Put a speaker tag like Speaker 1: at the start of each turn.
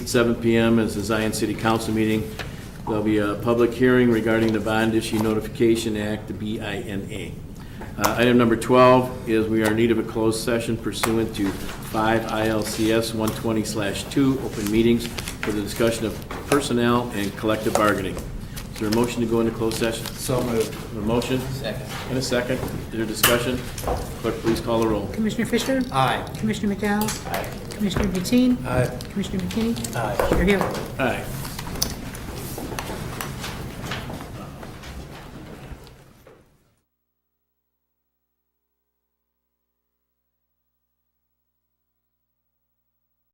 Speaker 1: 7 PM is the Zion City Council meeting. There'll be a public hearing regarding the Bond Issue Notification Act, the BINA. Uh, Item number 12 is we are in need of a closed session pursuant to 5 ILCS 120/2, open meetings for the discussion of personnel and collective bargaining. Is there a motion to go into closed session?
Speaker 2: So moved.
Speaker 1: A motion? Second. And a second. Is there discussion? Clerk, please call the roll.
Speaker 3: Commissioner Fisher?
Speaker 2: Aye.
Speaker 3: Commissioner McDowell? Commissioner Deteen?
Speaker 2: Aye.
Speaker 3: Commissioner McKinney?
Speaker 2: Aye.
Speaker 3: Chair Hill?
Speaker 1: Aye.